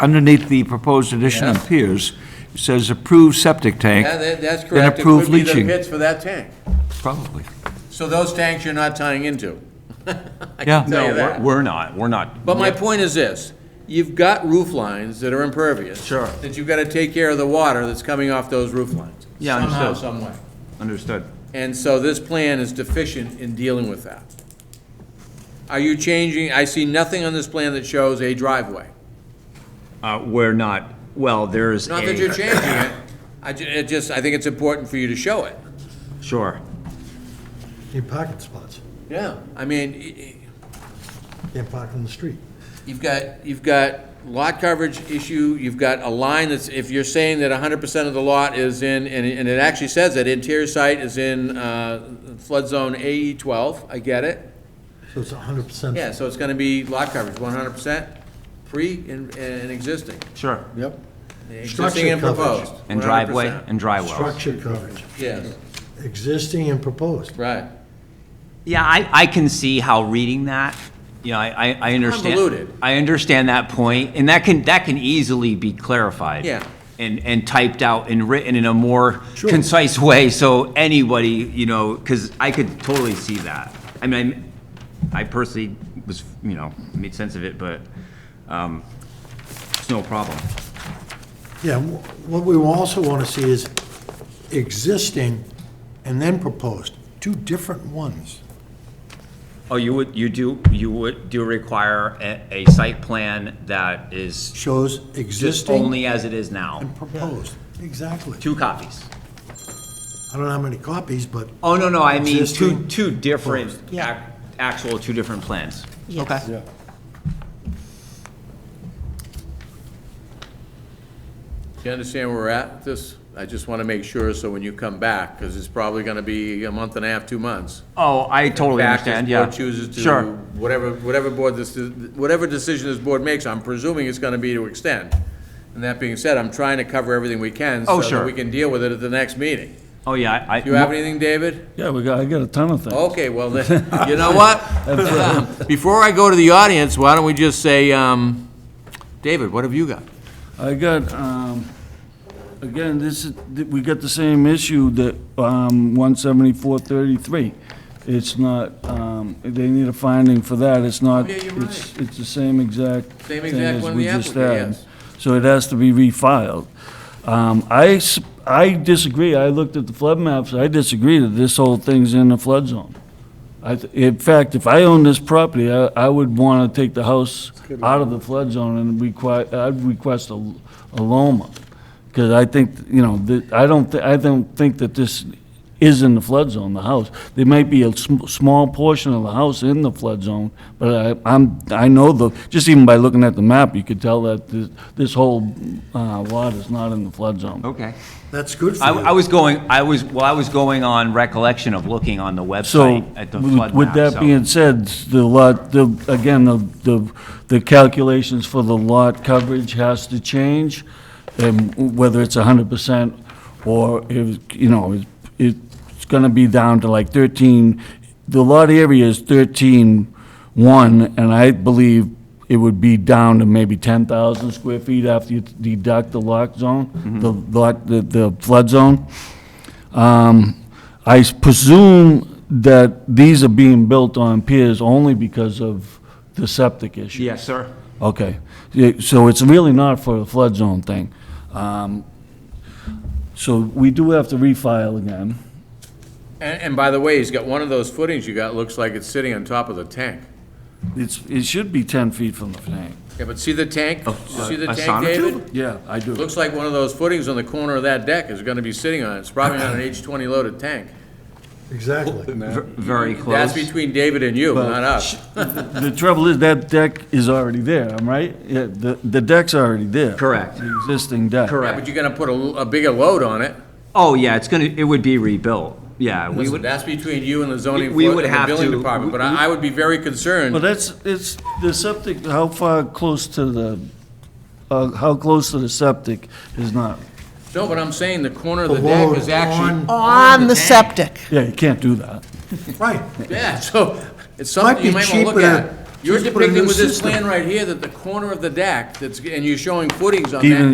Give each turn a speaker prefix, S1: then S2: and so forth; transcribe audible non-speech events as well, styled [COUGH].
S1: underneath the proposed addition and piers, it says approved septic tank.
S2: Yeah, that- that's
S1: and
S2: correct. It
S1: approved
S2: could be the
S1: leaching.
S2: Pits for that tank.
S1: Probably,
S2: So those tanks you're not tying into. I
S1: Yeah.
S2: can
S1: No,
S2: tell you
S3: No, we're-
S2: that.
S3: we're not, we're not.
S2: But my point is this, you've got roof lines that are impervious.
S3: Sure.
S2: That you've got to take care of the water that's coming off those roof lines.
S3: Yeah,
S2: Somehow,
S3: understood.
S2: some way.
S3: Understood.
S2: And so this plan is deficient in dealing with that. Are you changing, I see nothing on this plan that shows a driveway.
S3: Uh, We're not, well, there is a.
S2: Not that you're changing it, I ju, it just, I think it's important for you to show it.
S3: Sure.
S4: Need parking spots.
S2: Yeah. I mean, i- i-
S4: Can't park on the street.
S2: You've got, you've got lot coverage issue, you've got a line that's, if you're saying that hundred percent of the lot is in, and it, and it actually says that interior site is in, uh, flood zone AE twelve, I get it.
S4: So it's hundred percent.
S2: Yeah, so it's gonna be lot coverage, one hundred percent, pre and, and existing,
S3: Sure.
S4: Yep.
S2: existing and
S4: coverage.
S2: proposed.
S3: And driveway,
S2: 100%.
S3: and dry wells.
S4: Structure coverage,
S2: Yes,
S4: existing and proposed.
S2: right.
S3: Yeah, I, I can see how reading that, you know, I, I- I understand.
S2: Convoluted.
S3: I understand that point, and that can, that can easily be clarified.
S2: Yeah.
S3: And, and typed out and written in a more
S4: Sure.
S3: concise way, so anybody, you know, because I could totally see that. I mean, I personally was, you know, made sense of it, but um, it's no problem.
S4: Yeah, wh- what we also want to see is existing and then proposed, two different ones.
S3: Oh, you would, you do, you would, do require a, a site plan that is
S4: Shows
S3: just
S4: existing
S3: only as it is now.
S4: and proposed, exactly.
S3: Two copies.
S4: I don't know how many copies, but,
S3: Oh, no, no, I mean, two,
S4: Existing.
S3: two different,
S4: Yeah.
S3: ac- actual, two different plans.
S5: Yes.
S2: Do you understand where we're at? This, I just wanna make sure, so when you come back, because it's probably gonna be a month and a half, two months.
S3: Oh, I totally
S2: back, this
S3: understand, yeah.
S2: board chooses to,
S3: Sure,
S2: whatever, whatever board this, whatever decision this board makes, I'm presuming it's gonna be to extend. And that being said, I'm trying to cover everything we can.
S3: Oh,
S2: So
S3: sure.
S2: that we can deal with it at the next meeting.
S3: oh, yeah, I.
S2: Do you have anything, David?
S6: Yeah, we got, I got a ton of things.
S2: Okay, well,
S3: [LAUGHS]
S2: then, you know what? Um, Before I go to the audience, why don't we just say, um, David, what have you got?
S6: I got, um, again, this is, th- we got the same issue that, um, one seventy-four thirty-three. It's not, um, they need a finding for that, it's not.
S2: Oh, yeah, you're
S6: It's, it's the same exact.
S2: Same
S6: thing
S2: exact
S6: as
S2: one
S6: we
S2: the
S6: just
S2: applicant,
S6: had.
S2: yes.
S6: So it has to be refiled. Um, I, s- I disagree, I looked at the flood maps, I disagree that this whole thing's in the flood zone. I, th- in fact, if I owned this property, I, I would want to take the house out of the flood zone and require, I'd request a, a Loma. Because I think, you know, that, I don't, thi- I don't think that this is in the flood zone, the house. There might be a sm- small portion of the house in the flood zone, but I, I'm, I know the, just even by looking at the map, you could tell that this, this whole, uh, lot is not in the flood zone.
S3: Okay.
S4: that's good for
S3: I,
S4: you.
S3: I was going, I was, well, I was going on recollection of looking on the
S6: So,
S3: website at the
S6: with-
S3: flood
S6: with
S3: map,
S6: that
S3: so-
S6: being said, the lot, the, again, the, the the calculations for the lot coverage has to change, and whether it's hundred percent, or if, you know, it- it's gonna be down to like thirteen, the lot area is thirteen one, and I believe it would be down to maybe ten thousand square feet after you deduct the lock
S3: Mm-hmm.
S6: zone, the lot, the, the flood zone. Um, I s- presume that these are being built on piers only because of the septic issue?
S3: Yes, sir.
S6: Okay, Yeah, so it's really not for the flood zone thing. Um, So we do have to refile again.
S2: And, and by the way, he's got one of those footings you got, looks like it's sitting on top of the tank.
S6: It's, it should be 10 feet from the tank.
S2: Yeah, but see the tank? You See the
S3: a
S2: tank,
S3: sonotube?
S2: David?
S6: Yeah, I do.
S2: Looks like one of those footings on the corner of that deck is gonna be sitting on it. It's probably on an H twenty loaded tank.
S4: Exactly.
S3: Ver- Very
S2: That's
S3: close.
S2: between David and you, not us.
S6: The trouble is, that deck is already there, am I right? Yeah, the, the deck's already there.
S3: Correct.
S6: The existing deck.
S2: Yeah, but you're gonna put a, l- a bigger load on it.
S3: Oh, yeah, it's gonna, it would be rebuilt, yeah. we
S2: Listen,
S3: would.
S2: that's between you and the zoning,
S3: We- we
S2: fo-
S3: would
S2: and the
S3: have
S2: building
S3: to-
S2: department, but
S3: we-
S2: I, I would be very concerned.
S6: Well, that's, it's, the septic, how far close to the, uh, how close to the septic is not,
S2: No, but I'm saying the corner of
S4: The
S2: the deck is
S4: load
S2: actually.
S4: on-
S5: On the
S2: tank.
S5: septic.
S6: yeah, you can't do that.
S4: Right,
S2: Yeah, so it's
S4: might
S2: something
S4: be
S2: you might wanna look
S4: cheaper
S2: at. You're
S4: Just put a
S2: depicting
S4: new
S2: with this
S4: system.
S2: plan right here that the corner of the deck, that's, and you're showing footings on that.
S6: Even